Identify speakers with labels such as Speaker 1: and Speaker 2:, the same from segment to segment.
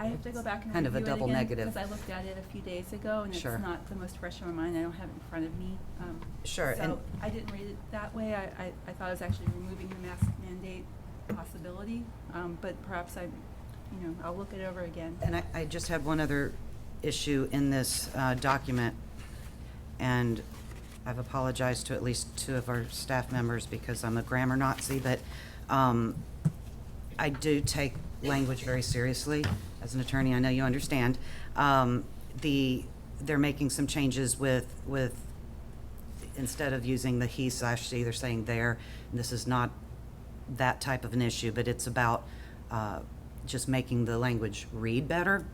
Speaker 1: have to go back and
Speaker 2: Kind of a
Speaker 1: review it
Speaker 2: double
Speaker 1: again,
Speaker 2: negative.
Speaker 1: Because I looked at it a few days ago, and it's
Speaker 2: Sure.
Speaker 1: not the most fresh in my mind, I don't have it in front of me. um,
Speaker 2: Sure, and-
Speaker 1: So I didn't read it that way, I, I, I thought it was actually removing the mask mandate possibility, um, but perhaps I, you know, I'll look it over again.
Speaker 2: And I, I just have one other issue in this uh, document, and I've apologized to at least two of our staff members because I'm a grammar Nazi, but um, I do take language very seriously. As an attorney, I know you understand. Um, The, they're making some changes with, with, instead of using the he slash she, they're saying there. And This is not that type of an issue, but it's about uh, just making the language read better.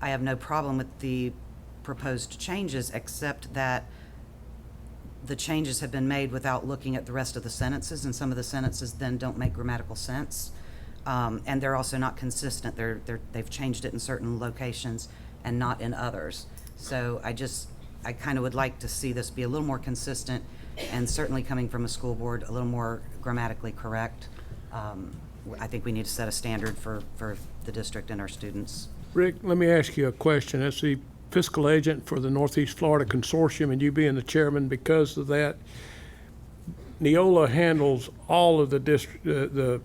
Speaker 2: I have no problem with the proposed changes, except that the changes have been made without looking at the rest of the sentences, and some of the sentences then don't make grammatical sense. Um, and they're also not consistent. They're, they're, they've changed it in certain locations and not in others. So I just, I kind of would like to see this be a little more consistent and certainly coming from a school board, a little more grammatically correct. Um, I think we need to set a standard for, for the district and our students.
Speaker 3: Rick, let me ask you a question. As the fiscal agent for the Northeast Florida Consortium and you being the chairman because of that, Neola handles all of the district, uh, the,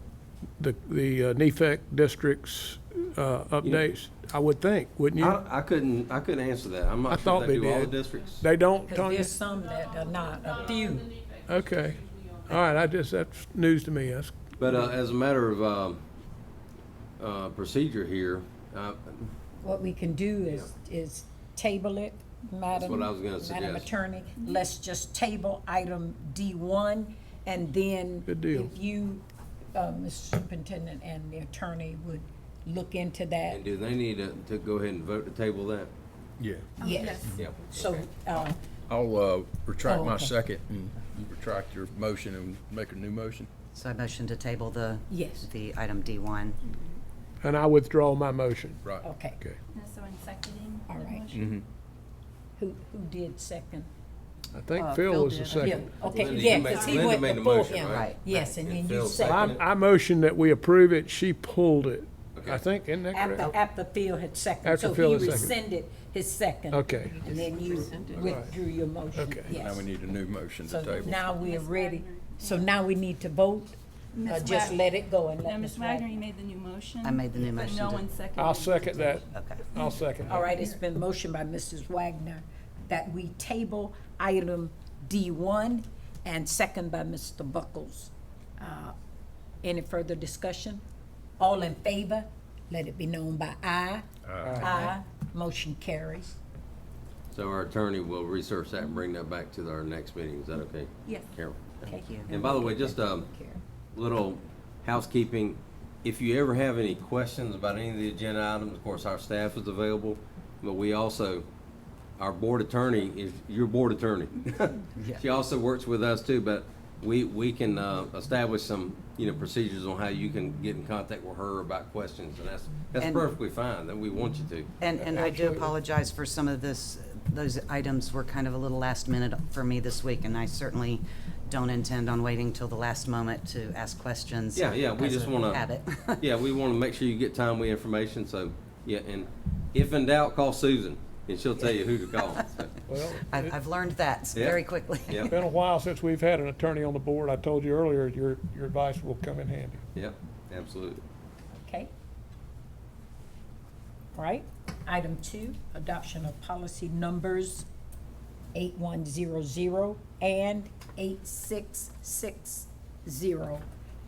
Speaker 3: the, the uh, NEFAC districts uh, updates, I would think, wouldn't you?
Speaker 4: I, I couldn't, I couldn't answer that. I'm
Speaker 3: I
Speaker 4: not
Speaker 3: thought
Speaker 4: sure they
Speaker 3: they
Speaker 4: do all the
Speaker 3: did.
Speaker 4: districts.
Speaker 3: They don't,
Speaker 5: Because
Speaker 3: Tanya?
Speaker 5: there's some that are not, a few.
Speaker 3: Okay. All right, I just, that's news to me. That's,
Speaker 4: But uh, as a matter of um, uh, procedure here, uh,
Speaker 5: What we can do is, is table it, Madam.
Speaker 4: what I was gonna
Speaker 5: Madam
Speaker 4: suggest.
Speaker 5: Attorney, let's just table item D one, and then.
Speaker 3: Good deal.
Speaker 5: If you, uh, Mr. Superintendent and the attorney would look into that,
Speaker 4: and do they need to, to go ahead and vote to table that?
Speaker 6: Yeah.
Speaker 5: yes.
Speaker 4: Yeah.
Speaker 5: So, uh,
Speaker 6: I'll uh, retract
Speaker 5: Oh,
Speaker 6: my
Speaker 5: okay.
Speaker 6: second and you retract your motion and make a new motion.
Speaker 2: So I motion to table the,
Speaker 5: Yes.
Speaker 2: the item D1.
Speaker 3: and I withdraw my motion.
Speaker 6: Right.
Speaker 5: okay,
Speaker 3: Okay.
Speaker 1: And so in seconding the
Speaker 5: All right.
Speaker 1: motion.
Speaker 5: who, who did second?
Speaker 3: I think
Speaker 2: Uh,
Speaker 3: Phil
Speaker 2: Phil
Speaker 3: was the
Speaker 2: did, I
Speaker 5: Yeah,
Speaker 3: second.
Speaker 5: okay,
Speaker 4: Linda,
Speaker 5: yeah,
Speaker 4: you made-
Speaker 5: because he
Speaker 4: Linda
Speaker 5: went
Speaker 4: made the
Speaker 5: before
Speaker 4: motion,
Speaker 5: him.
Speaker 4: right?
Speaker 5: Yes, and then
Speaker 4: And
Speaker 5: you
Speaker 4: Phil
Speaker 3: I,
Speaker 5: seconded,
Speaker 4: seconded.
Speaker 3: I motion that we approve it. She pulled it. I
Speaker 4: Okay.
Speaker 3: think, isn't that correct?
Speaker 5: after, after Phil had seconded,
Speaker 3: After
Speaker 5: so
Speaker 3: Phil
Speaker 5: he
Speaker 3: had seconded.
Speaker 5: rescinded his second.
Speaker 3: Okay.
Speaker 5: And then you withdrew your motion,
Speaker 3: Okay.
Speaker 5: yes.
Speaker 6: Now we need a new motion to
Speaker 5: So
Speaker 6: table.
Speaker 5: now we are ready, so now we need to vote, or
Speaker 1: Ms.
Speaker 5: just
Speaker 1: Wag-
Speaker 5: let it go and
Speaker 1: Now,
Speaker 5: let
Speaker 1: Ms.
Speaker 5: Ms.
Speaker 1: Wagner, you
Speaker 5: Wagner.
Speaker 1: made the new motion.
Speaker 2: I made the new motion
Speaker 1: But no
Speaker 2: to-
Speaker 1: one seconded.
Speaker 3: I'll second that.
Speaker 2: Okay.
Speaker 3: I'll second that.
Speaker 5: All right, it's been motioned by Mrs. Wagner that we table item D one and second by Mr. Buckles. Uh, Any further discussion? All in favor, let it be known by aye. Aye. Motion carries.
Speaker 4: So our attorney will research that and bring that back to our next meeting. Is that okay?
Speaker 1: Yes.
Speaker 4: Carol?
Speaker 5: Thank you.
Speaker 4: And by the way, just a little housekeeping. If you ever have any questions about any of the agenda items, of course, our staff is available, but we also, our board attorney is your board attorney. She also works with us too, but we, we can uh, establish some, you know, procedures on how you can get in contact with her about questions, and that's, that's
Speaker 2: And-
Speaker 4: perfectly fine, that we want you to.
Speaker 2: And, and I do apologize for some of this, those items were kind of a little last minute for me this week, and I certainly don't intend on waiting till the last moment to ask questions.
Speaker 4: Yeah, yeah, we
Speaker 2: as
Speaker 4: just
Speaker 2: a
Speaker 4: want to.
Speaker 2: Habit.
Speaker 4: Yeah, we want to make sure you get timely information, so, yeah, and if in doubt, call Susan, and she'll tell you who to call. so.
Speaker 3: Well,
Speaker 2: I've, I've learned that
Speaker 4: Yeah.
Speaker 2: very quickly.
Speaker 4: Yeah.
Speaker 3: Been a while since we've had an attorney on the board. I told you earlier, your, your advice will come in handy.
Speaker 4: Yep, absolutely.
Speaker 5: Okay. All right, item two, adoption of policy numbers eight one zero zero and eight six six zero.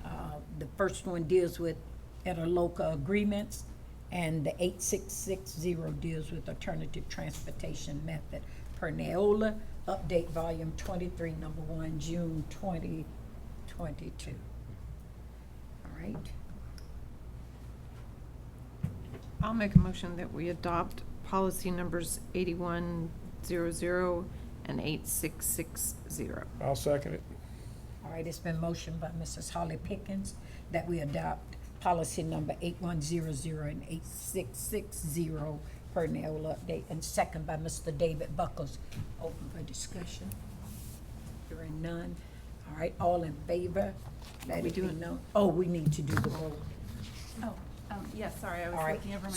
Speaker 5: Uh, The first one deals with interlocal agreements, and the eight six six zero deals with alternative transportation method. Per Neola, update volume twenty-three, number one, June twenty twenty-two. All right.
Speaker 7: I'll make a motion that we adopt policy numbers 8100 and 8660.
Speaker 3: I'll second it.
Speaker 5: All right, it's been motioned by Mrs. Holly Pickens that we adopt policy number eight one zero zero and eight six six zero per Neola update, and second by Mr. David Buckles. Open for discussion. Hearing none. All right, all in favor? Let it be known. Oh, we need to do the vote.
Speaker 1: Oh, um, yeah, sorry, I
Speaker 5: All
Speaker 1: was
Speaker 5: right.
Speaker 1: looking over my